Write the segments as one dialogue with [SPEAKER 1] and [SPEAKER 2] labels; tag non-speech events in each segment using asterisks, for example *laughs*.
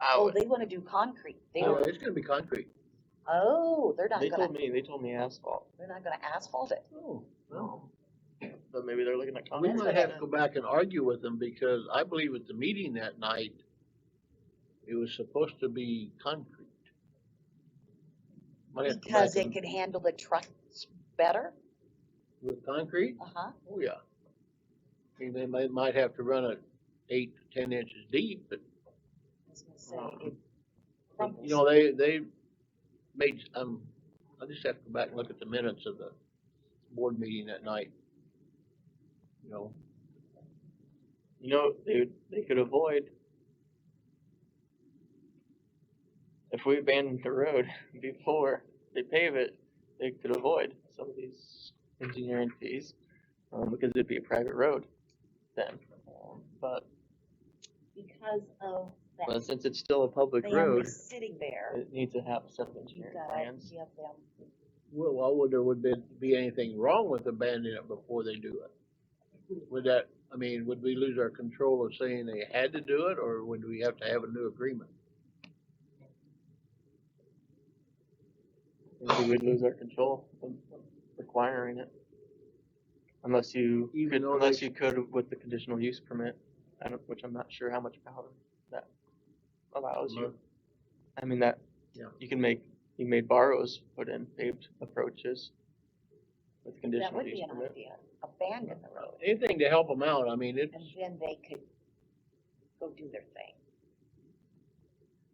[SPEAKER 1] I
[SPEAKER 2] Oh,
[SPEAKER 1] would,
[SPEAKER 2] they wanna do concrete. They
[SPEAKER 1] no,
[SPEAKER 2] don't,
[SPEAKER 1] it's gonna be concrete.
[SPEAKER 2] oh, they're not
[SPEAKER 1] They
[SPEAKER 2] gonna,
[SPEAKER 1] told me, they told me asphalt.
[SPEAKER 2] they're not gonna asphalt it.
[SPEAKER 1] Oh, no. But maybe they're looking at
[SPEAKER 2] Well,
[SPEAKER 1] concrete.
[SPEAKER 2] that's
[SPEAKER 1] I mean,
[SPEAKER 2] Yeah. what
[SPEAKER 1] I
[SPEAKER 2] I
[SPEAKER 1] might have to
[SPEAKER 2] thought.
[SPEAKER 1] go back and argue with them because I believe at the meeting that night, it was supposed to be concrete. Might have to go back
[SPEAKER 2] Because it
[SPEAKER 1] and-
[SPEAKER 2] can handle the trucks better,
[SPEAKER 1] With concrete?
[SPEAKER 2] uh-huh.
[SPEAKER 1] Oh, yeah. I mean, they might, might have to run it eight to ten inches deep, but
[SPEAKER 2] I was gonna say, it
[SPEAKER 1] You know, they, they made, um, I just have to go back and look at the minutes of the board meeting that night. You know? You know, they, they could avoid. If we abandoned the road *laughs* before they pave it, they could avoid some of these engineering fees, um, because it'd be a private road then. Um, But,
[SPEAKER 2] because of
[SPEAKER 1] but
[SPEAKER 2] that
[SPEAKER 1] since it's still a public
[SPEAKER 2] family
[SPEAKER 1] road,
[SPEAKER 2] sitting there,
[SPEAKER 1] it needs to have some
[SPEAKER 2] you
[SPEAKER 1] engineering
[SPEAKER 2] gotta
[SPEAKER 1] plans.
[SPEAKER 2] give them,
[SPEAKER 3] Well, why would there would be, be anything wrong with abandoning it before they do it? Would that, I mean, would we lose our control of saying they had to do it, or would we have to have a new agreement?
[SPEAKER 1] we would lose our control from requiring it. Unless you,
[SPEAKER 3] Even
[SPEAKER 1] could-
[SPEAKER 3] though they-
[SPEAKER 1] unless you could with the conditional use permit, I don't, which I'm not sure how much power that allows you. I mean, that,
[SPEAKER 3] Yeah.
[SPEAKER 1] you can make, you made borrows put in paved approaches with
[SPEAKER 2] that
[SPEAKER 1] conditional
[SPEAKER 2] would
[SPEAKER 1] use
[SPEAKER 2] be an
[SPEAKER 1] permit.
[SPEAKER 2] idea, abandon the road.
[SPEAKER 3] Anything to help them out, I mean, it's,
[SPEAKER 2] and then they could go do their thing.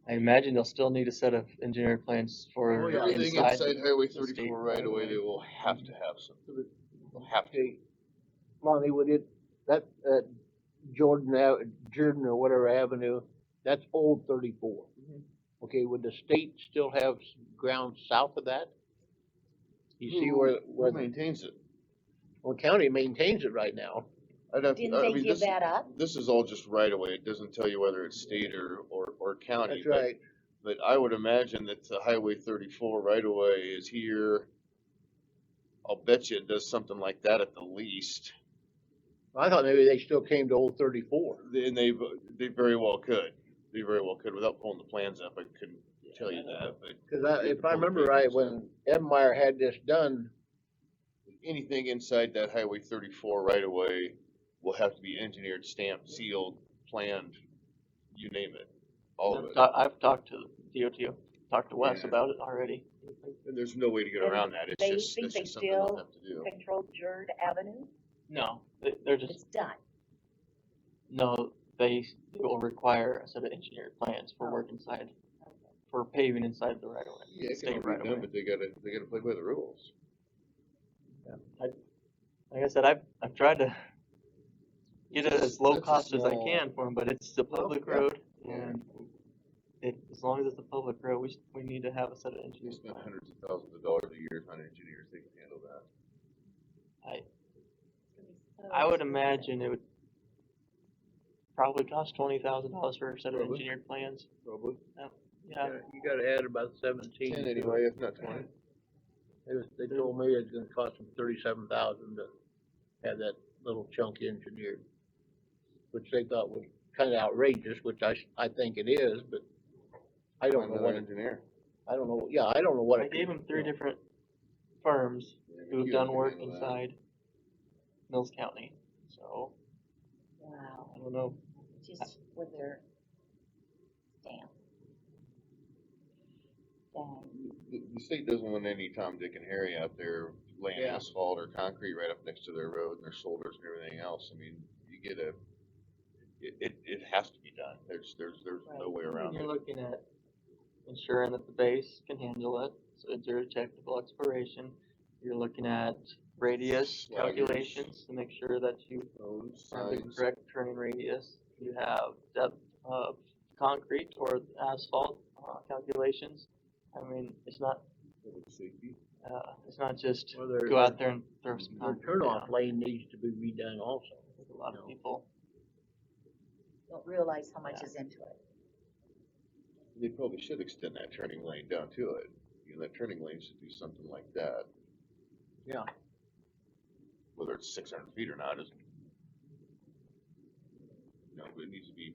[SPEAKER 1] I imagine they'll still need a set of engineered plans
[SPEAKER 3] Oh,
[SPEAKER 1] for
[SPEAKER 3] yeah.
[SPEAKER 1] inside.
[SPEAKER 4] Everything inside Highway
[SPEAKER 1] the state
[SPEAKER 4] thirty-four right away,
[SPEAKER 1] highway.
[SPEAKER 4] they will have to have some, they'll have to.
[SPEAKER 3] okay, Lonnie, would it, that, that Jordan Ave, Jordan or whatever avenue, that's old thirty-four.
[SPEAKER 1] Mhm.
[SPEAKER 3] Okay, would the state still have s- ground south of that? You see
[SPEAKER 4] Who-
[SPEAKER 3] where, where,
[SPEAKER 4] Who maintains it?
[SPEAKER 3] well, county maintains it right now.
[SPEAKER 4] I'd have, to-
[SPEAKER 2] Didn't
[SPEAKER 4] I
[SPEAKER 2] they
[SPEAKER 4] mean,
[SPEAKER 2] give
[SPEAKER 4] this,
[SPEAKER 2] that up?
[SPEAKER 4] this is all just right away, it doesn't tell you whether it's state or, or, or county.
[SPEAKER 3] That's
[SPEAKER 4] but-
[SPEAKER 3] right.
[SPEAKER 4] But I would imagine that the Highway thirty-four right away is here. I'll bet you it does something like that at the least,
[SPEAKER 3] I thought maybe they still came to old thirty-four.
[SPEAKER 4] and they, they very well could, they very well could, without pulling the plans up, I couldn't tell you that, but.
[SPEAKER 3] Cause I, if I remember right, when Edmeyer had this done,
[SPEAKER 4] anything inside that Highway thirty-four right away will have to be engineered, stamped, sealed, planned, you name it, all of
[SPEAKER 1] I've
[SPEAKER 4] it.
[SPEAKER 1] ta- I've talked to DOT, talked to Wes
[SPEAKER 4] Yeah.
[SPEAKER 1] about it already.
[SPEAKER 4] And there's no way to get
[SPEAKER 2] And
[SPEAKER 4] around that, it's
[SPEAKER 2] they
[SPEAKER 4] just,
[SPEAKER 2] think
[SPEAKER 4] that's
[SPEAKER 2] they
[SPEAKER 4] just something they'll
[SPEAKER 2] still-
[SPEAKER 4] have to do.
[SPEAKER 2] Controlled Jerd Avenue,
[SPEAKER 1] No, they- they're just
[SPEAKER 2] it's done.
[SPEAKER 1] No, they, they will require a set of engineered plans for work inside, for paving inside the right of way.
[SPEAKER 4] Yeah, it
[SPEAKER 1] state
[SPEAKER 4] can all be
[SPEAKER 1] right of
[SPEAKER 4] done,
[SPEAKER 1] way.
[SPEAKER 4] but they gotta, they gotta play by the rules.
[SPEAKER 1] Like I said, I've, I've tried to get it as low
[SPEAKER 4] That's a
[SPEAKER 1] cost as I
[SPEAKER 4] small-
[SPEAKER 1] can for them, but it's a public road
[SPEAKER 4] yeah.
[SPEAKER 1] and it, as long as it's a public road, we, s- we need to have a set of
[SPEAKER 4] They
[SPEAKER 1] engineers.
[SPEAKER 4] spend hundreds of thousands of dollars a year on engineers, they can handle that.
[SPEAKER 1] I would imagine it would probably cost twenty thousand dollars for a set of
[SPEAKER 4] Probably.
[SPEAKER 1] engineered plans,
[SPEAKER 4] Probably.
[SPEAKER 1] yeah.
[SPEAKER 3] you gotta add about seventeen.
[SPEAKER 4] Ten
[SPEAKER 3] to it.
[SPEAKER 4] anyway, if not twenty.
[SPEAKER 3] It was- They told me it's gonna cost them thirty-seven thousand to have that little chunk engineered, which they thought was kinda outrageous, which I, s- I think it is, but I don't know what, it-
[SPEAKER 4] engineer.
[SPEAKER 3] I don't know, yeah, I don't know what.
[SPEAKER 1] I
[SPEAKER 3] it-
[SPEAKER 1] gave them three
[SPEAKER 3] you know,
[SPEAKER 1] different firms
[SPEAKER 4] Yeah,
[SPEAKER 1] who have
[SPEAKER 4] you
[SPEAKER 1] done
[SPEAKER 4] can
[SPEAKER 1] work
[SPEAKER 4] handle that.
[SPEAKER 1] inside Mills County, so,
[SPEAKER 2] Wow,
[SPEAKER 1] I don't know.
[SPEAKER 2] just with their stamp. Dang.
[SPEAKER 4] The, the state doesn't want any Tom, Dick and Harry out there laying
[SPEAKER 3] Yeah.
[SPEAKER 4] asphalt or concrete right up next to their road and their shoulders and everything else. I mean, you get a, it, it, it has to be done. There's, there's, there's no way
[SPEAKER 1] And
[SPEAKER 4] around
[SPEAKER 1] You're
[SPEAKER 4] it.
[SPEAKER 1] looking at ensuring that the base can handle it, so it's your technical exploration. You're looking at radius
[SPEAKER 4] Sliders.
[SPEAKER 1] calculations to make sure that you
[SPEAKER 4] Roads,
[SPEAKER 1] have the
[SPEAKER 4] signs,
[SPEAKER 1] correct turning radius. You have depth of concrete or asphalt uh, calculations. I mean, it's not,
[SPEAKER 4] public safety.
[SPEAKER 1] uh, it's not just
[SPEAKER 3] or their-
[SPEAKER 1] go out there and throw some
[SPEAKER 3] Their
[SPEAKER 1] concrete down.
[SPEAKER 3] turnoff lane needs to be redone also.
[SPEAKER 1] There's A lot of
[SPEAKER 3] No.
[SPEAKER 1] people,
[SPEAKER 2] Don't realize how much
[SPEAKER 1] Yeah.
[SPEAKER 2] is into it.
[SPEAKER 4] They probably should extend that turning lane down to it. You know, that turning lane should do something like that.
[SPEAKER 3] Yeah.
[SPEAKER 4] Whether it's six hundred feet or not is. No, but it needs to be